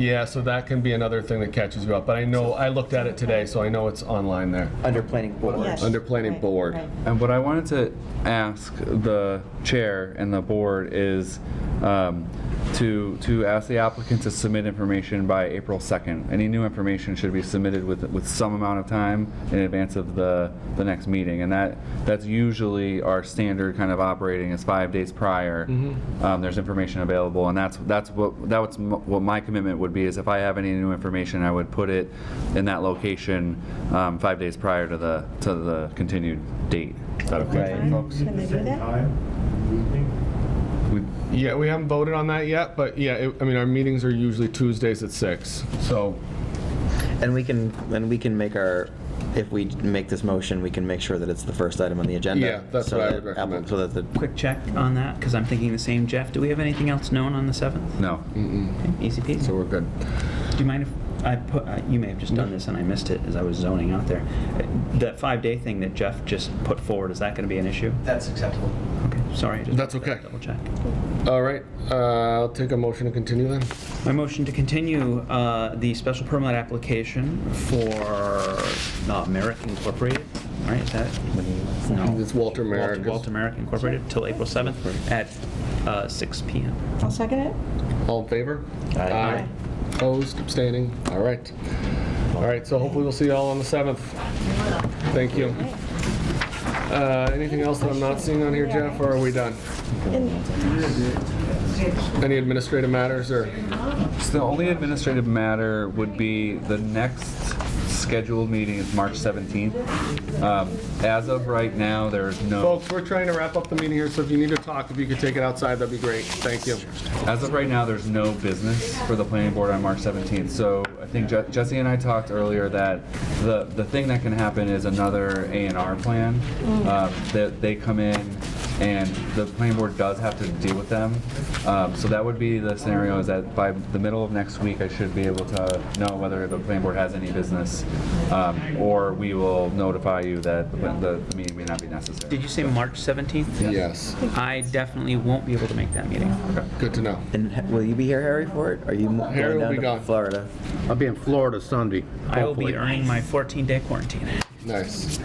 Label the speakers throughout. Speaker 1: Yeah, so that can be another thing that catches you up. But I know, I looked at it today, so I know it's online there.
Speaker 2: under planning board.
Speaker 3: Yes.
Speaker 1: Under planning
Speaker 3: Right,
Speaker 1: board.
Speaker 3: right.
Speaker 4: And what I wanted to ask the chair and the board is um, to, to ask the applicant to submit information by April 2nd. Any new information should be submitted with, with some amount of time in advance of the, the next meeting. And that, that's usually our standard kind of operating is five days prior. Um, There's information available and that's, that's what, that's m- what my commitment would be is if I have any new information, I would put it in that location um, five days prior to the, to the continued date. Is that okay?
Speaker 2: Right.
Speaker 4: folks?
Speaker 3: Can they do that?
Speaker 4: We-
Speaker 1: Yeah, we haven't voted on that yet, but yeah, it- I mean, our meetings are usually Tuesdays at six. So
Speaker 2: And we can, and we can make our, if we make this motion, we can make sure that it's the first item on the agenda.
Speaker 1: Yeah, that's
Speaker 2: so
Speaker 1: what I
Speaker 2: that
Speaker 1: would
Speaker 2: Apple-
Speaker 1: recommend.
Speaker 2: So that the,
Speaker 5: Quick check on that, because I'm thinking the same, Jeff. Do we have anything else known on the E 7th?
Speaker 4: No,
Speaker 5: Okay, Easy peasy.
Speaker 1: so we're good.
Speaker 5: Do you mind if I put, uh, you may have just done this and I missed it as I was zoning out there. Uh, That five-day thing that Jeff just put forward, is that going to be an issue?
Speaker 6: That's acceptable.
Speaker 5: Okay, sorry. I just
Speaker 1: That's okay.
Speaker 5: Double check.
Speaker 1: All right, uh, I'll take a motion to continue then.
Speaker 5: My motion to continue uh, the special permit application for uh, Merrick Incorporated, right, is that? No.
Speaker 1: It's Walter Merrick.
Speaker 5: Walter- Walter Merrick Incorporated till April 7th at uh, 6 PM.
Speaker 3: I'll second it.
Speaker 1: All in favor?
Speaker 2: Aye.
Speaker 3: Aye.
Speaker 1: Opposed, abstaining? All right. All right, so hopefully we'll see you all on the 7th. Thank you. Uh, Anything else that I'm not seeing on here, Jeff, or are we done? Any administrative matters or?
Speaker 4: So the only administrative matter would be the next scheduled meeting is March 17th. Um, As of right now, there is no,
Speaker 1: Folks, we're trying to wrap up the meeting here, so if you need to talk, if you could take it outside, that'd be great. Thank you.
Speaker 4: as of right now, there's no business for the planning board on March 17th. So I think Je- Jesse and I talked earlier that the, the thing that can happen is another A and R plan. um, That they come in and the planning board does have to deal with them. Um, So that would be the scenario is that by the middle of next week, I should be able to know whether the planning board has any business. um, Or we will notify you that the the meeting may not be necessary.
Speaker 5: Did you say March 17th?
Speaker 1: Yes,
Speaker 5: I definitely won't be able to make that meeting.
Speaker 1: good to know.
Speaker 2: and ha- will you be here, Harry, for it? Are you mo-
Speaker 1: Harry
Speaker 2: going
Speaker 1: will be
Speaker 2: down
Speaker 1: gone.
Speaker 2: to Florida?
Speaker 7: I'll be in Florida Sunday.
Speaker 5: I will be
Speaker 7: hopefully.
Speaker 5: earning my 14-day quarantine.
Speaker 1: Nice.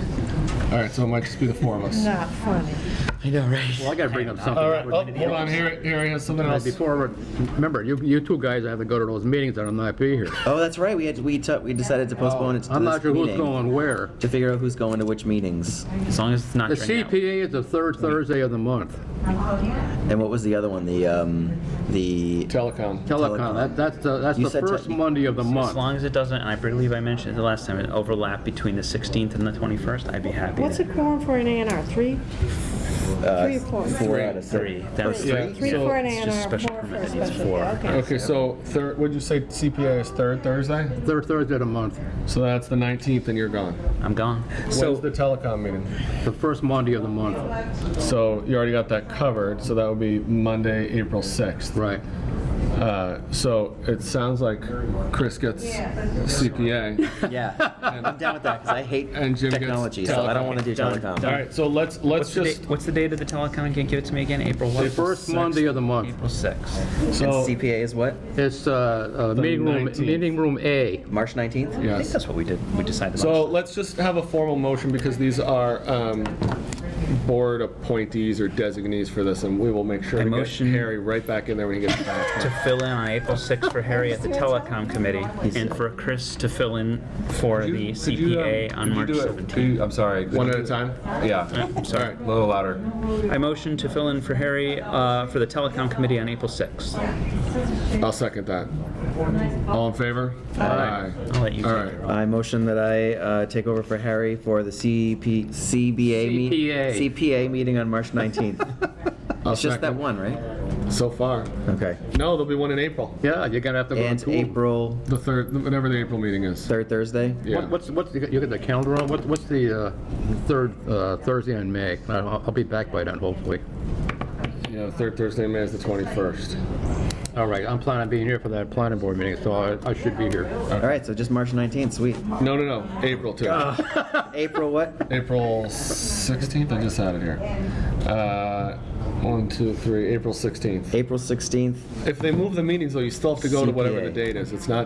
Speaker 1: All right, so it might just be the four of us.
Speaker 3: Not funny.
Speaker 2: I know, right?
Speaker 7: Well, I gotta bring up something.
Speaker 1: All right, oh, hold on, here, here, I have something
Speaker 7: Uh,
Speaker 1: else.
Speaker 7: Before, remember, you, you two guys have to go to those meetings, and I'm not be here.
Speaker 2: Oh, that's right, we had, we took, we decided to postpone it to Oh, this
Speaker 7: Oh, I'm not sure who's
Speaker 2: meeting
Speaker 7: going where.
Speaker 2: To figure out who's going to which meetings.
Speaker 5: As long as it's not
Speaker 7: The
Speaker 5: during that.
Speaker 7: CPA is the third Thursday of the month.
Speaker 2: And what was the other one, the, um, the,
Speaker 1: Telecom.
Speaker 7: Telecom, that, that's the, that's
Speaker 2: You
Speaker 7: the
Speaker 2: said
Speaker 7: first
Speaker 2: tech-
Speaker 7: Monday of the
Speaker 5: As
Speaker 7: month.
Speaker 5: long as it doesn't, and I believe I mentioned it the last time, an overlap between the 16th and the 21st, I'd be happy.
Speaker 3: What's a
Speaker 5: to-
Speaker 3: quorum for an A and R? Three? Three or four?
Speaker 2: uh, four out of
Speaker 5: Three.
Speaker 2: six?
Speaker 5: That was
Speaker 3: Three,
Speaker 1: Yeah,
Speaker 5: three.
Speaker 3: three
Speaker 1: so
Speaker 3: for an A
Speaker 5: it's
Speaker 3: and
Speaker 5: just
Speaker 3: R,
Speaker 5: special
Speaker 3: four for
Speaker 5: permit
Speaker 3: a
Speaker 5: is
Speaker 3: special.
Speaker 5: four.
Speaker 3: Okay.
Speaker 1: Okay, so third, would you say CPA is third Thursday?
Speaker 7: Third Thursday of the month,
Speaker 1: So that's the 19th and you're gone.
Speaker 5: I'm gone.
Speaker 1: When's the
Speaker 5: So,
Speaker 1: telecom meeting?
Speaker 7: the first Monday of the month,
Speaker 1: So you already got that covered, so that would be Monday, April 6th.
Speaker 7: right.
Speaker 1: Uh, So it sounds like Chris gets CPA.
Speaker 2: Yeah, I'm down with that, because I hate
Speaker 1: And Jim gets
Speaker 2: technology, so I don't
Speaker 1: telecom.
Speaker 2: want to do
Speaker 5: Done,
Speaker 2: telecom.
Speaker 1: All right, so let's, let's
Speaker 5: what's the,
Speaker 1: just,
Speaker 5: date, what's the date of the telecon again? Give it to me again. April what?
Speaker 7: The first Monday of the month.
Speaker 5: April 6th.
Speaker 1: so,
Speaker 2: CPA is what,
Speaker 7: It's, uh, uh,
Speaker 1: The
Speaker 7: meeting room,
Speaker 1: 19th.
Speaker 7: meeting room A.
Speaker 2: March 19th?
Speaker 5: I think
Speaker 1: yes.
Speaker 5: that's what we did. We decided.
Speaker 1: So let's just have a formal motion because these are um, board appointees or designees for this, and we will make sure
Speaker 5: I
Speaker 1: to get
Speaker 5: motion-
Speaker 1: Harry right back in there when he gets
Speaker 5: to
Speaker 1: back.
Speaker 5: fill in on April 6th for Harry at the telecom committee, and for Chris to fill in for the
Speaker 4: Could you, um,
Speaker 5: CPA on
Speaker 4: could you
Speaker 5: March
Speaker 4: do it- could
Speaker 5: 17th.
Speaker 4: you- I'm sorry.
Speaker 1: One at a time?
Speaker 4: Yeah,
Speaker 1: All right.
Speaker 4: a little louder.
Speaker 5: I motion to fill in for Harry uh, for the telecom committee on April 6th.
Speaker 1: I'll second that. All in favor? Aye.
Speaker 5: I'll let you
Speaker 1: All right.
Speaker 5: take it.
Speaker 2: I motion that I uh, take over for Harry for the CP, CBA meeting.
Speaker 7: CPA.
Speaker 2: CPA meeting on March 19th.
Speaker 1: I'll
Speaker 2: It's just that
Speaker 1: second.
Speaker 2: one, right?
Speaker 1: So far.
Speaker 2: Okay.
Speaker 1: No, there'll be one in April.
Speaker 7: Yeah, you're gonna have to go
Speaker 2: And
Speaker 7: to.
Speaker 2: April,
Speaker 1: The third, whenever the April meeting is.
Speaker 2: third Thursday?
Speaker 1: Yeah.
Speaker 7: What- What's, what's, you got you got the calendar on, What- what's the uh, third uh, Thursday in May? I'll I'll be back by then, hopefully.
Speaker 1: Yeah, the third Thursday in May is the 21st.
Speaker 7: All right, I'm planning on being here for that planning board meeting, so I- I should be here.
Speaker 2: All right, so just March 19th, sweet.
Speaker 1: No, no, no, April too.
Speaker 7: Ah.
Speaker 2: April what?
Speaker 1: April 16th, I just had it here. Uh, One, two, three, April 16th.
Speaker 2: April 16th,
Speaker 1: If they move the meetings, though, you still have to go to whatever the
Speaker 2: CPA.
Speaker 1: date is. It's not